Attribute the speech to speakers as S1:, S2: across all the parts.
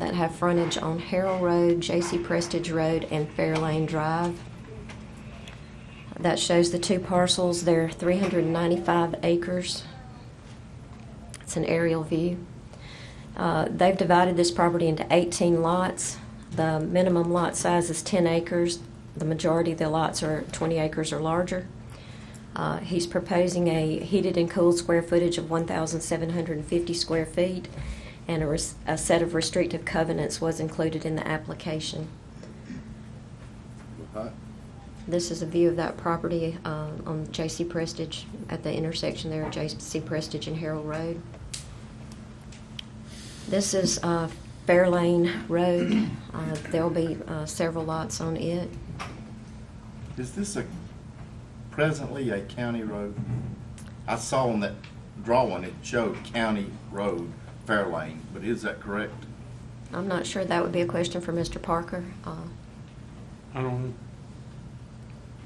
S1: that have frontage on Harrell Road, J.C. Prestige Road, and Fairlane Drive. That shows the two parcels. They're 395 acres. It's an aerial view. Uh, They've divided this property into 18 lots. The minimum lot size is 10 acres. The majority of the lots are 20 acres or larger. Uh, He's proposing a heated and cooled square footage of 1,750 square feet, and a res- a set of restrictive covenants was included in the application.
S2: Alright.
S1: This is a view of that property uh, on J.C. Prestige, at the intersection there of J.C. Prestige and Harrell Road. This is uh, Fairlane Road. Uh, There'll be uh, several lots on it.
S2: Is this a, presently a county road? I saw on that drawing, it showed county road, Fairlane, but is that correct?
S1: I'm not sure that would be a question for Mr. Parker. Uh,
S3: I don't,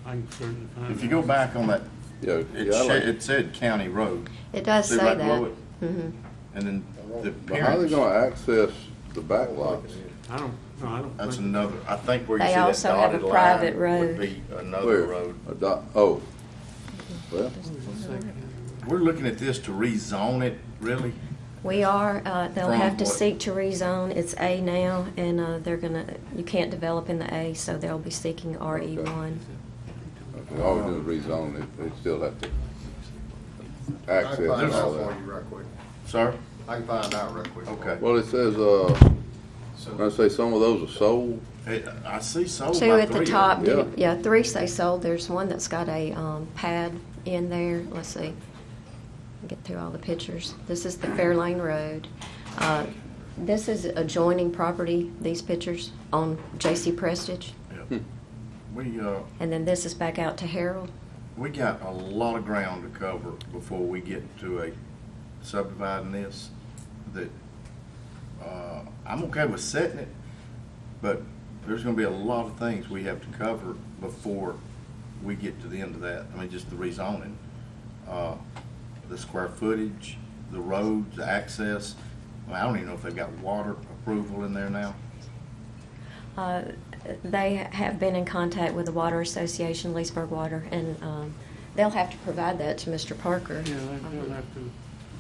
S3: I can certainly find out.
S2: If you
S4: Mm-hmm.
S2: go back on that,
S4: Yeah,
S2: it
S4: yeah, I
S2: sha-
S4: like,
S2: it said county road,
S1: It does
S2: See
S1: say
S2: right
S1: that.
S2: below it?
S1: Mhm.
S2: and then the
S4: but how they
S2: appearance,
S4: gonna access the back lots?
S3: I don't, no, I don't.
S2: that's
S3: think-
S2: another, I think where you
S1: They
S2: see that
S1: also have a
S2: dotted
S1: private
S2: line
S1: road.
S2: would be another
S4: Where?
S2: road.
S4: A dot, oh. Well,
S2: We're looking at this to rezone it, really?
S1: We are, uh, they'll
S2: From
S1: have to
S2: what?
S1: seek to rezone. It's A now, and uh, they're gonna, you can't develop in the A, so they'll be seeking E RE1.
S4: if all we do is rezone it, they still have to
S5: I can
S4: access
S5: find
S4: all
S5: out for you
S4: that.
S5: real quick.
S2: Sir?
S5: I can find out real quick.
S2: Okay.
S4: Well, it says, uh, I
S5: So,
S4: say some of those are sold,
S2: Hey, I see sold
S1: Two
S2: by
S1: at
S2: Oh, three
S1: the
S2: of
S1: top,
S2: them.
S1: do-
S4: Yeah.
S1: yeah, three say sold. There's one that's got a um, pad in there. Let's see, get through all the pictures. This is the Fairlane Road. Uh, This is adjoining property, these pictures, on J.C. Prestige.
S2: Yeah. We, uh,
S1: And then this is back out to Harold.
S2: We got a lot of ground to cover before we get to a subdividing this that, uh, I'm okay with setting it, but there's gonna be a lot of things we have to cover before we get to the end of that. I mean, just the rezoning, uh, the square footage, the roads, the access. I mean, I don't even know if they've got water approval in there now.
S1: Uh, They have been in contact with the Water Association, Leesburg Water, and um, they'll have to provide that to Mr. Parker.
S3: Yeah, they- they'll have to.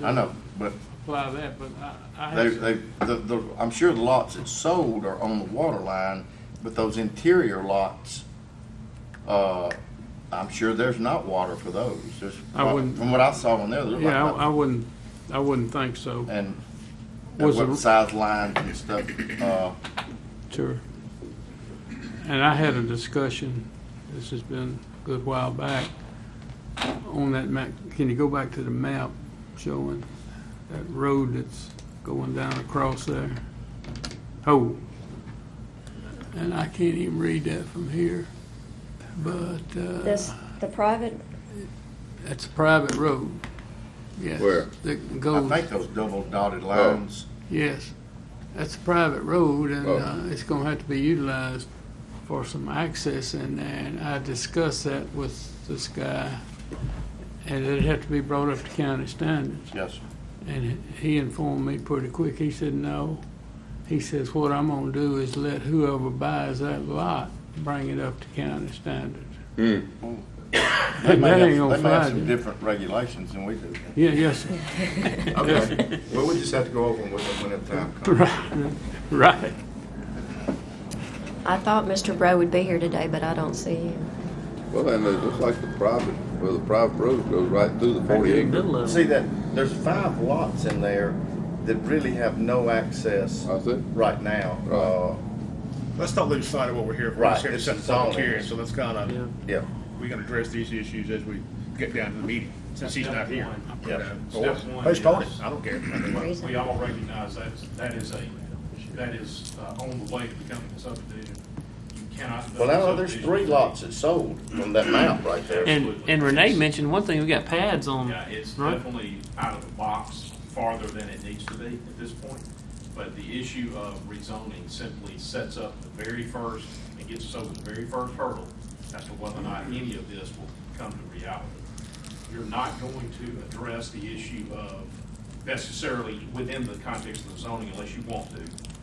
S2: I know, but
S3: Apply that, but I, I
S2: They,
S3: have,
S2: they, the, the, I'm sure the lots that sold are on the water line, but those interior lots, uh, I'm sure there's not water for those. There's,
S3: I wouldn't-
S2: from what I saw on there, there's like.
S3: yeah, I I wouldn't, I wouldn't think so.
S2: And, and
S3: Was
S2: what
S3: the-
S2: size lines and stuff, uh,
S3: Sure. And I had a discussion, this has been a good while back, on that map, can you go back to the map showing that road that's going down across there? Oh. And I can't even read that from here, but, uh,
S1: This, the private,
S3: that's a private road. Yes.
S4: Where?
S3: That
S2: I
S3: goes,
S2: think those double dotted lines.
S3: yes. That's a private road and,
S4: Oh.
S3: uh, it's gonna have to be utilized for some access in there, and I discussed that with this guy. And it'd have to be brought up to county standards.
S2: Yes,
S3: And he informed me pretty quick. He said, no. He says, what I'm gonna do is let whoever buys that lot bring it up to county standards.
S2: they may
S3: That
S2: have,
S3: ain't gonna
S2: they may have
S3: fly,
S2: some
S3: dude.
S2: different regulations than we do.
S3: Yeah, yes, sir.
S2: Okay, well, we just have to go over them when the time comes.
S3: Right, right.
S1: I thought Mr. Bro would be here today, but I don't see him.
S4: well, and it's just like the private, where the private road goes right through the forty acre.
S2: See that, there's five lots in there that really have no access
S4: I see.
S2: right now.
S4: Right.
S2: Uh,
S6: Let's not lose sight of what we're here for.
S2: Right,
S6: We're here to
S2: this
S6: set
S2: is
S6: the public
S2: all it
S6: hearing,
S2: is.
S6: so let's kind of,
S2: yeah.
S6: we can address these issues as we get down to the meeting, since he's not here.
S2: Yeah.
S6: Or
S7: Step one
S6: postpone it,
S7: is-
S6: I don't care.
S1: Reason.
S7: We all recognize that, that is a, that is uh, on the way to becoming a subdivision. You cannot.
S2: Well, I know there's three lots that sold on that map right there.
S8: And and Renee mentioned one thing. We got pads on.
S7: Yeah, it's
S8: right?
S7: definitely out of the box farther than it needs to be at this point. But the issue of rezoning simply sets up the very first, and gets us over the very first hurdle as to whether or not any of this will come to reality. You're not going to address the issue of necessarily within the context of the zoning unless you want to.